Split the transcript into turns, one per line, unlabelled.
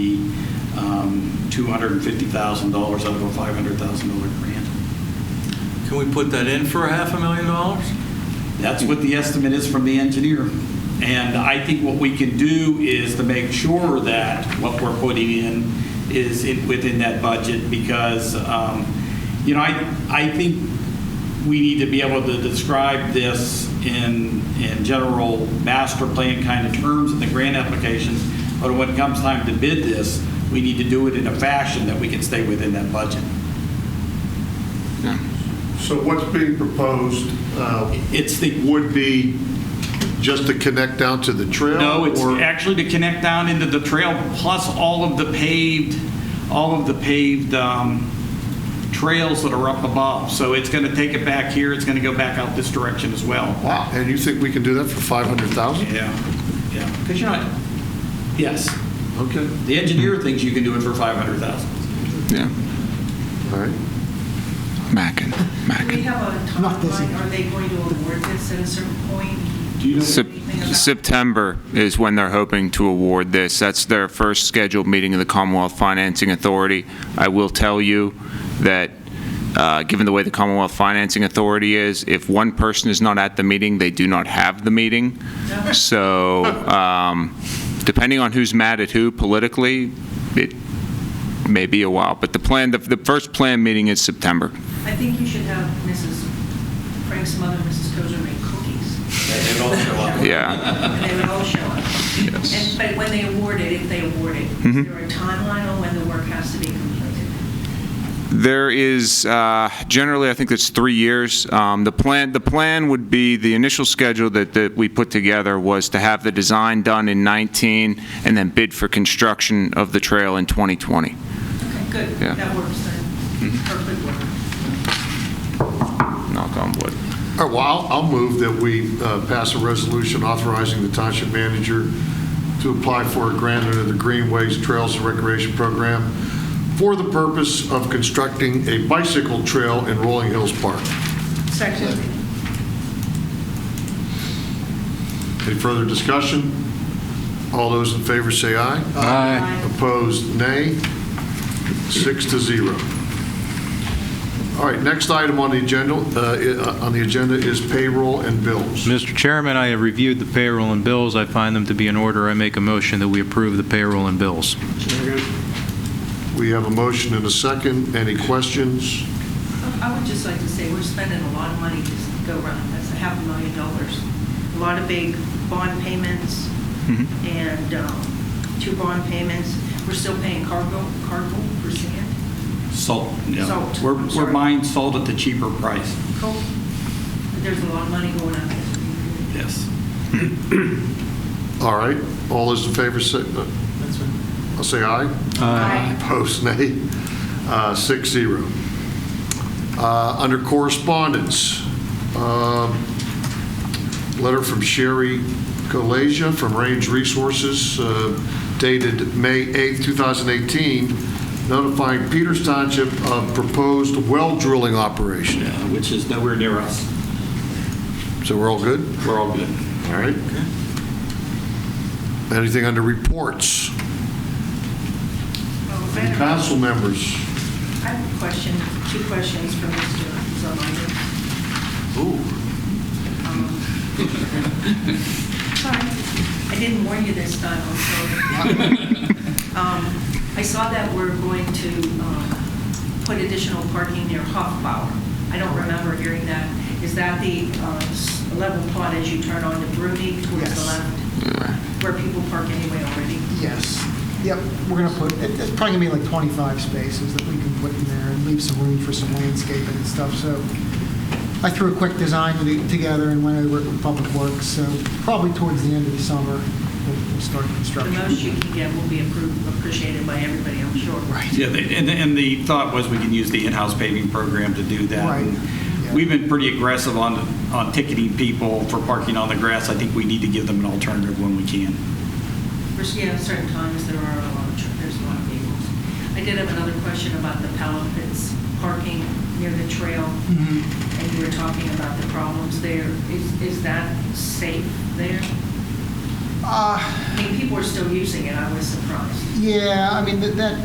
um, $250,000 out of a $500,000 grant.
Can we put that in for a half a million dollars?
That's what the estimate is from the engineer. And I think what we can do is to make sure that what we're putting in is in- within that budget because, um, you know, I, I think we need to be able to describe this in, in general master plan kind of terms in the grant application. But when it comes time to bid this, we need to do it in a fashion that we can stay within that budget.
So what's being proposed uh,
It's the
would be just to connect down to the trail?
No, it's
or-
actually to connect down into the trail, plus all of the paved, all of the paved um, trails that are up above. So it's going to take it back here, it's going to go back out this direction as well.
Wow, and you think we can do that for 500,000?
Yeah, yeah. Because you're not, yes,
Okay,
the engineer thinks you can do it for 500,000.
Yeah,
all right.
Mackin,
Do we
Mackin.
have a timeline? Are they going to award this at a certain point?
Sep-
Anything about-
September is when they're hoping to award this. That's their first scheduled meeting of the Commonwealth Financing Authority. I will tell you that, uh, given the way the Commonwealth Financing Authority is, if one person is not at the meeting, they do not have the meeting. So um, depending on who's mad at who politically, it may be a while. But the plan, the- the first plan meeting is September.
I think you should have Mrs. Frank's mother, Mrs. Tozer, make cookies.
They all show up.
Yeah.
And they would all show up. And- But when they award it, if they award it,
Mm-hmm.
is there a timeline on when the work has to be completed?
There is, uh, generally, I think it's three years. Um, The plan, the plan would be, the initial schedule that, that we put together was to have the design done in 19 and then bid for construction of the trail in 2020.
Okay, good.
Yeah. Mm-hmm.
That works then. Perfect work.
Knock on wood.
All right, well, I'll- I'll move that we uh, pass a resolution authorizing the township manager to apply for a grant under the Greenways Trails and Recreation Program for the purpose of constructing a bicycle trail in Rolling Hills Park.
Second.
Any further discussion? All those in favor say aye.
Aye.
Opposed, nay. Six to zero. All right, next item on the agenda, uh, on the agenda is payroll and bills.
Mr. Chairman, I have reviewed the payroll and bills. I find them to be in order. I make a motion that we approve the payroll and bills.
We have a motion and a second. Any questions?
I would just like to say, we're spending a lot of money to go around. That's a half a million dollars. A lot of big bond payments and um, two bond payments. We're still paying cargo, cargo for sand.
Salt, yeah.
Salt,
We're
I'm
we're
sorry.
buying salt at the cheaper price,
Cool. But There's a lot of money going out there.
yes.
All right, all those in favor say, uh, I'll say aye. Opposed, nay. Uh, Six, zero. Uh, Under correspondence, um, letter from Sherry Galasia from Range Resources uh, dated May 8, 2018, notifying Peters Township of proposed well drilling operation.
Yeah, Which is nowhere near us.
So we're all good?
We're all good.
All right. Anything under reports?
Oh, better.
Council members?
I have a question, two questions for Mr. Zalando. Ooh. Um, Sorry, I didn't warn you this time, I'm sorry. Um, I saw that we're going to um, put additional parking near Hoffbauer. I don't remember hearing that. Is that the uh, s- level plot as you turn onto Bruni towards the
Yes.
left? Where people park anyway already?
Yes. Yep, we're going to put, it- it's probably going to be like 25 spaces that we can put in there and leave some room for some landscaping and stuff. So I threw a quick design to do- together and went over it with Public Works. So probably towards the end of the summer, we'll we'll start
The
construction.
most you can get will be approved, appreciated by everybody, I'm sure.
Right.
Yeah, they- and, and the thought was we can use the in-house paving program to do that.
Right, yeah.
We've been pretty aggressive on, on ticketing people for parking on the grass. I think we need to give them an alternative when we can.
First, yeah, certain times there are a lot of, tr- there's a lot of vehicles. I did have another question about the Palapits parking near the trail,
Mhm.
and you were talking about the problems there. Is, is that safe there?
Uh,
I mean, people are still using it, I was surprised.
Yeah, I mean, that- that,